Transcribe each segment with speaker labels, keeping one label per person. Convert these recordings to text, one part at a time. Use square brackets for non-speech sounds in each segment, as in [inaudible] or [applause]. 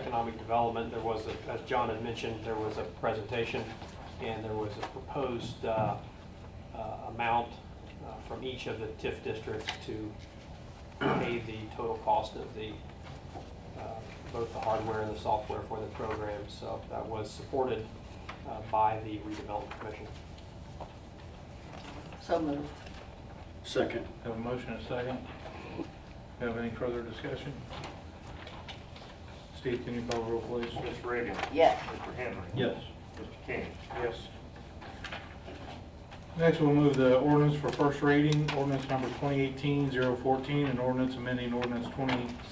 Speaker 1: Economic Development, there was, a- as John had mentioned, there was a presentation, and there was a proposed uh, uh, amount uh, from each of the TIF districts to pay the total cost of the, uh, both the hardware and the software for the program. So that was supported uh, by the redevelopment commission.
Speaker 2: So moved.
Speaker 3: Second.
Speaker 4: Have a motion and a second. Have any further discussion? Steve, can you call the roll, please?
Speaker 5: Ms. Reagan.
Speaker 2: Yes.
Speaker 5: Mr. Henry.
Speaker 4: Yes.
Speaker 5: Mr. King.
Speaker 4: Yes. Next, we'll move the ordinance for first reading, ordinance number 2018-014, and ordinance amending ordinance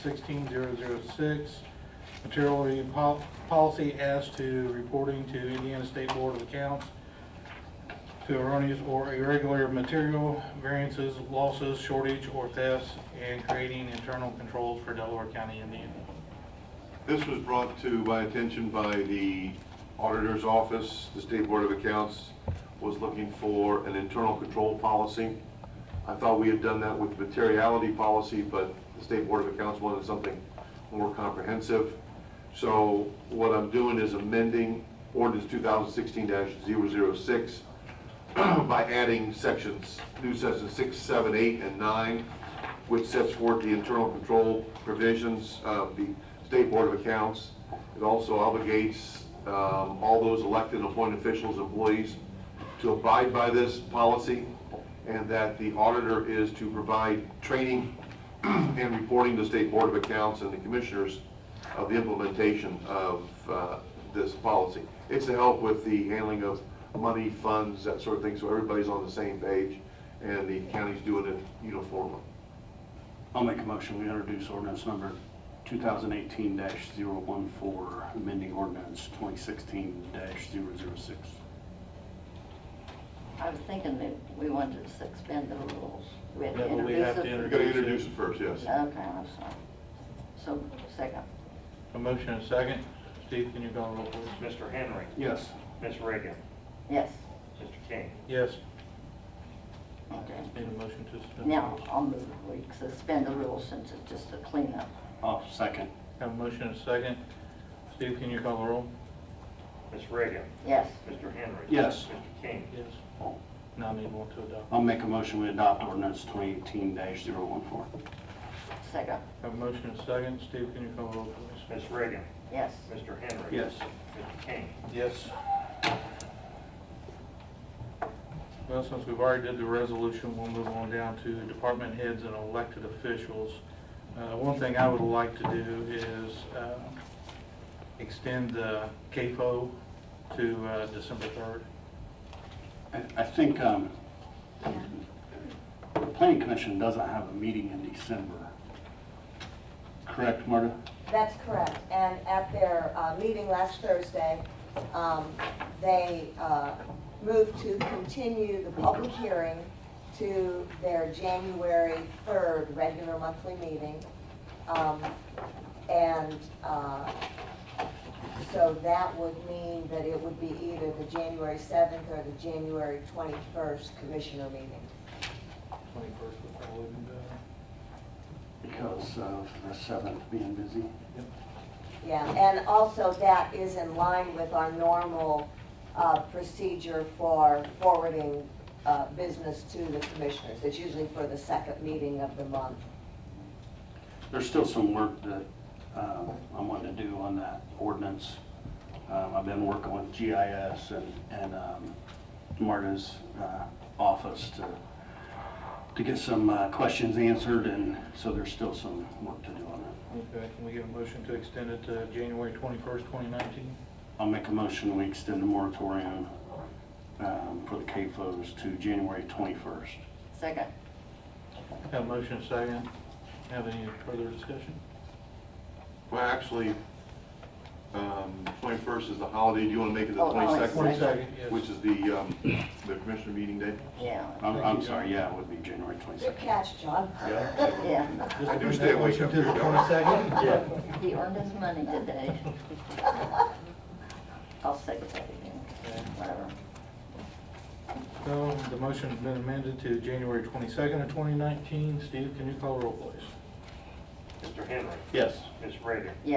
Speaker 4: 2016-006, material pol- policy as to reporting to Indiana State Board of Accounts to erroneous or irregular material variances, losses, shortage, or thefts, and creating internal controls for Delaware County, Indiana.
Speaker 6: This was brought to my attention by the auditor's office. The State Board of Accounts was looking for an internal control policy. I thought we had done that with materiality policy, but the State Board of Accounts wanted something more comprehensive. So what I'm doing is amending ordinance 2016-006 [clears throat] by adding sections, new sections six, seven, eight, and nine, which sets forth the internal control provisions of the State Board of Accounts. It also obligates um, all those elected and appointed officials, employees, to abide by this policy, and that the auditor is to provide training [clears throat] and reporting to State Board of Accounts and the Commissioners of the implementation of uh, this policy. It's to help with the handling of money, funds, that sort of thing, so everybody's on the same page, and the county's doing it uniformly.
Speaker 3: I'll make a motion, we introduce ordinance number 2018-014, amending ordinance 2016-006.
Speaker 2: I was thinking that we wanted to suspend the rules. Do We had
Speaker 4: Yeah,
Speaker 2: to
Speaker 4: but we
Speaker 2: introduce
Speaker 4: have
Speaker 2: it.
Speaker 4: to
Speaker 6: You
Speaker 4: introduce-
Speaker 6: gotta introduce it first, yes.
Speaker 2: Okay, I'm sorry. So, second.
Speaker 4: A motion and a second. Steve, can you call the roll, please?
Speaker 5: Mr. Henry.
Speaker 3: Yes.
Speaker 5: Ms. Reagan.
Speaker 2: Yes,
Speaker 5: Mr. King.
Speaker 4: Yes.
Speaker 2: okay.
Speaker 4: Need a motion to suspend?
Speaker 2: Now, I'll move, we suspend the rules since it's just a cleanup.
Speaker 3: I'll second.
Speaker 4: Have a motion and a second. Steve, can you call the roll?
Speaker 5: Ms. Reagan.
Speaker 2: Yes,
Speaker 5: Mr. Henry.
Speaker 3: Yes.
Speaker 5: Mr. King.
Speaker 4: Yes. Now I need one to adopt.
Speaker 3: I'll make a motion, we adopt ordinance 2018-014.
Speaker 2: second.
Speaker 4: Have a motion and a second. Steve, can you call the roll, please?
Speaker 5: Ms. Reagan.
Speaker 2: Yes,
Speaker 5: Mr. Henry.
Speaker 3: Yes.
Speaker 5: Mr. King.
Speaker 4: Yes. Well, since we've already did the resolution, we'll move on down to department heads and elected officials. Uh, One thing I would like to do is uh, extend the CAFO to uh, December 3rd.
Speaker 3: I I think um, the planning commission doesn't have a meeting in December. Correct, Marta?
Speaker 7: That's correct, and at their uh, meeting last Thursday, um, they uh, moved to continue the public hearing to their January 3rd regular monthly meeting. Um, And uh, so that would mean that it would be either the January 7th or the January 21st commissioner meeting.
Speaker 4: 21st would probably be better.
Speaker 3: Because of the 7th being busy.
Speaker 7: Yeah, and also that is in line with our normal uh, procedure for forwarding uh, business to the commissioners. It's usually for the second meeting of the month.
Speaker 3: There's still some work that um, I'm wanting to do on that ordinance. Um, I've been working with GIS and and um, Marta's uh, office to to get some uh, questions answered, and so there's still some work to do on that.
Speaker 4: Okay, can we get a motion to extend it to January 21st, 2019?
Speaker 3: I'll make a motion, we extend the moratorium um, for the CAFOs to January 21st.
Speaker 2: second.
Speaker 4: Have a motion and a second. Have any further discussion?
Speaker 6: Well, actually, um, 21st is the holiday, do you wanna make it the
Speaker 2: Oh, oh, I see.
Speaker 6: 22nd?
Speaker 4: 22nd, yes.
Speaker 6: Which is the, um, the commissioner meeting day?
Speaker 2: Yeah,
Speaker 3: I'm I'm sorry, yeah, it would be January
Speaker 7: Good
Speaker 3: 22nd.
Speaker 7: catch, John.
Speaker 2: yeah.
Speaker 6: I do stay awake
Speaker 4: Motion to the
Speaker 6: up here, don't
Speaker 4: 22nd?
Speaker 3: Yeah.
Speaker 2: He earned his money today. [laughs] I'll second that again, whatever.
Speaker 4: So the motion's been amended to January 22nd of 2019. Steve, can you call roll, please?
Speaker 5: Mr. Henry.
Speaker 3: Yes.
Speaker 5: Ms. Reagan.